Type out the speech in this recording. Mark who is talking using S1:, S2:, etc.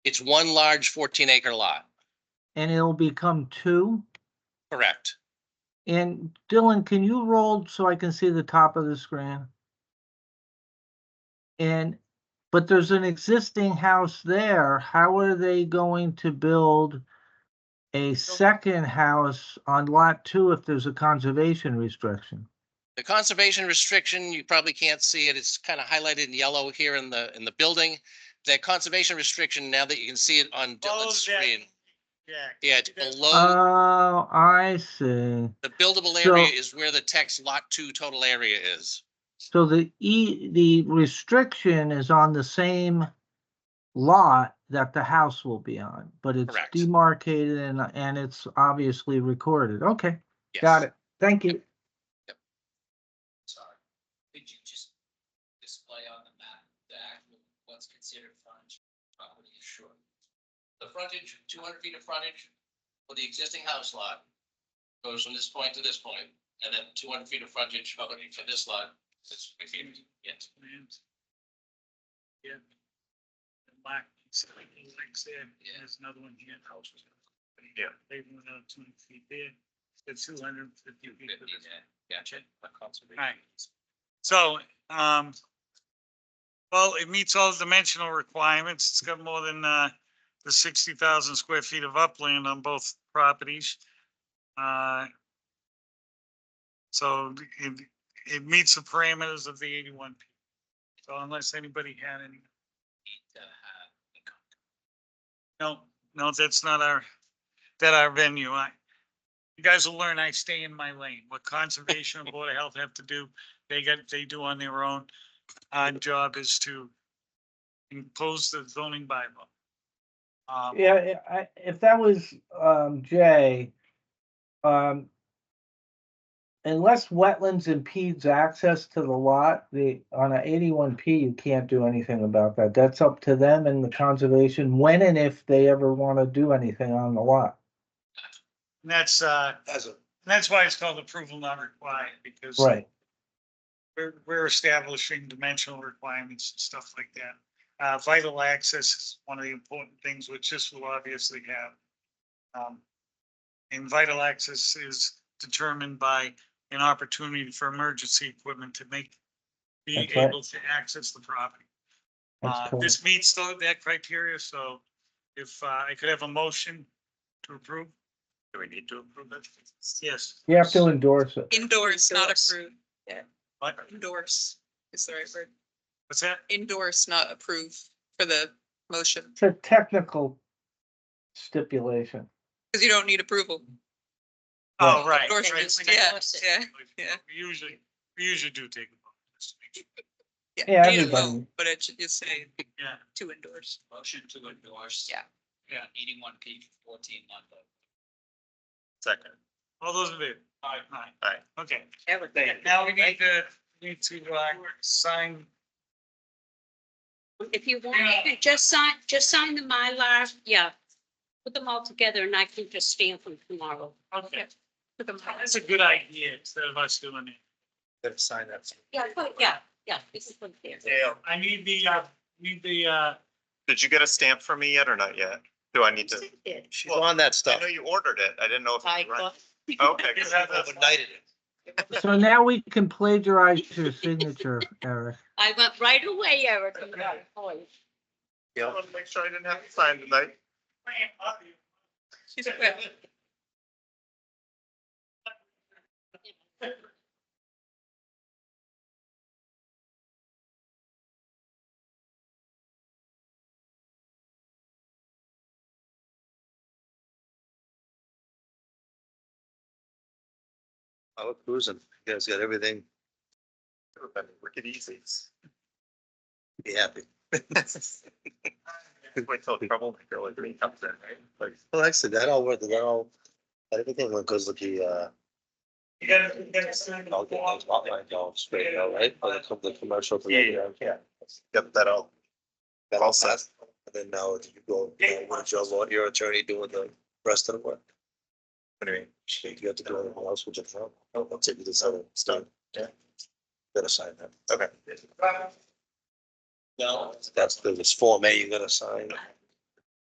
S1: It's one large fourteen acre lot,
S2: and it'll become two.
S1: correct?
S2: And Dylan, can you roll so I can see the top of the screen? And, but there's an existing house there. How are they going to build a second house on lot two if there's a conservation restriction?
S1: The conservation restriction, you probably can't see it. It's kind of highlighted in yellow here in the, in the building. That conservation restriction, now that you can see it on Dylan's
S3: Follows Oh, that-
S1: screen,
S3: Yeah.
S1: yeah, it's below,
S2: Oh, I see.
S1: the buildable
S2: so-
S1: area is where the text lot two total area is.
S2: So the E, the restriction is on the same lot that the house will be on, but it's
S1: Correct.
S2: demarcated and, and it's obviously recorded. Okay,
S1: Yes.
S2: got it. Thank you.
S4: Sorry. Could you just display on the map the actual, what's considered frontage property is short?
S1: The frontage, two hundred feet of frontage for the existing house lot goes from this point to this point, and then two hundred feet of frontage for for this lot. is continued. Yes.
S3: Yeah. The Black, it's like, it's there, and there's another one here. Yeah. They went out two hundred feet there, it's two hundred and fifty feet. to this.
S4: Gotcha.
S3: Right. So, um, well, it meets all the dimensional requirements. It's got more than, uh, the sixty thousand square feet of upland on both properties. Uh, So it, it meets the parameters of the eighty-one. P. So unless anybody had any, no, no, that's not our, that our venue. I, you guys will learn I stay in my lane. What conservation and board of health have to do, they get, they do on their own. Our job is to impose the zoning bylaw. Um,
S2: Yeah, I, I- if that was, um, Jay, um, unless wetlands impedes access to the lot, the, on a eighty-one P, you can't do anything about that. That's up to them and the conservation, when and if they ever want to do anything on the lot.
S3: and that's, uh,
S5: As a,
S3: that's why it's called approval not required, because
S2: Right.
S3: we're, we're establishing dimensional requirements and stuff like that. Uh, vital access is one of the important things which this will obviously have. Um, and vital access is determined by an opportunity for emergency equipment to make, be
S2: That's right.
S3: able to access the property.
S2: that's
S3: Uh,
S2: correct.
S3: this meets tho- that criteria, so if uh, I could have a motion to approve? Do we need to approve it? Yes.
S2: You have to endorse it.
S6: Endorse, not
S4: Endorse.
S6: approve.
S3: What?
S6: Endorse is the right word.
S3: What's that?
S6: Endorse, not approve for the motion,
S2: It's a technical stipulation.
S6: because you don't need approval.
S3: Oh, right.
S6: Endorse
S3: right.
S6: is- yeah, yeah, yeah.
S3: We Usually, we usually do take. a vote, just to make sure.
S2: Yeah,
S6: you need a vote,
S2: everybody.
S6: But it should just say
S3: Yeah,
S6: to endorse.
S4: Motion to endorse.
S6: Yeah.
S3: Yeah.
S4: Eighty-one P fourteen lot.
S5: second,
S3: all those in favor? Aye. Aye. Okay,
S4: Everything.
S3: now we need to, need to, uh, sign.
S7: If you want, you can just sign, just sign the Mylar, yeah. Put them all together and I can just stamp them tomorrow.
S3: Okay,
S6: Put them on.
S3: that's a good idea, instead of us doing it.
S5: then sign that.
S7: Yeah, but yeah, yeah, this is one there.
S5: Dale,
S3: I need the, uh, need the, uh,
S5: did you get a stamp from me yet or not yet? Do I need to? She's on that stuff. I know you ordered it. I didn't know if.
S7: I
S5: you were-
S7: got-
S5: Okay.
S3: You have that one.
S2: So now we can plagiarize your signature, Eric.
S7: I went right away, Eric. I'm like, "Oh,
S5: Yeah. I want to make sure I didn't have to sign tonight.
S6: She's like,
S5: I was cruising. You guys got everything. Wicked easy. Be happy. Wait till trouble girl like me comes in, right? Well, actually, that all worked, that all, everything went good with the, uh,
S3: You gotta, you gotta sign the
S5: I'll get those hotline calls straight out, right? I'll come the commercial. for the-
S3: Yeah,
S5: yeah. Yep, that all. That all set. And then now if you go, uh,
S3: Yeah.
S5: with your law, your attorney doing the rest of the work. Anyway, you have to do anything else, we'll just, I'll, I'll take you this other, oh, it's done. Yeah. Gotta sign that, okay. No, that's the, this form A you gotta sign.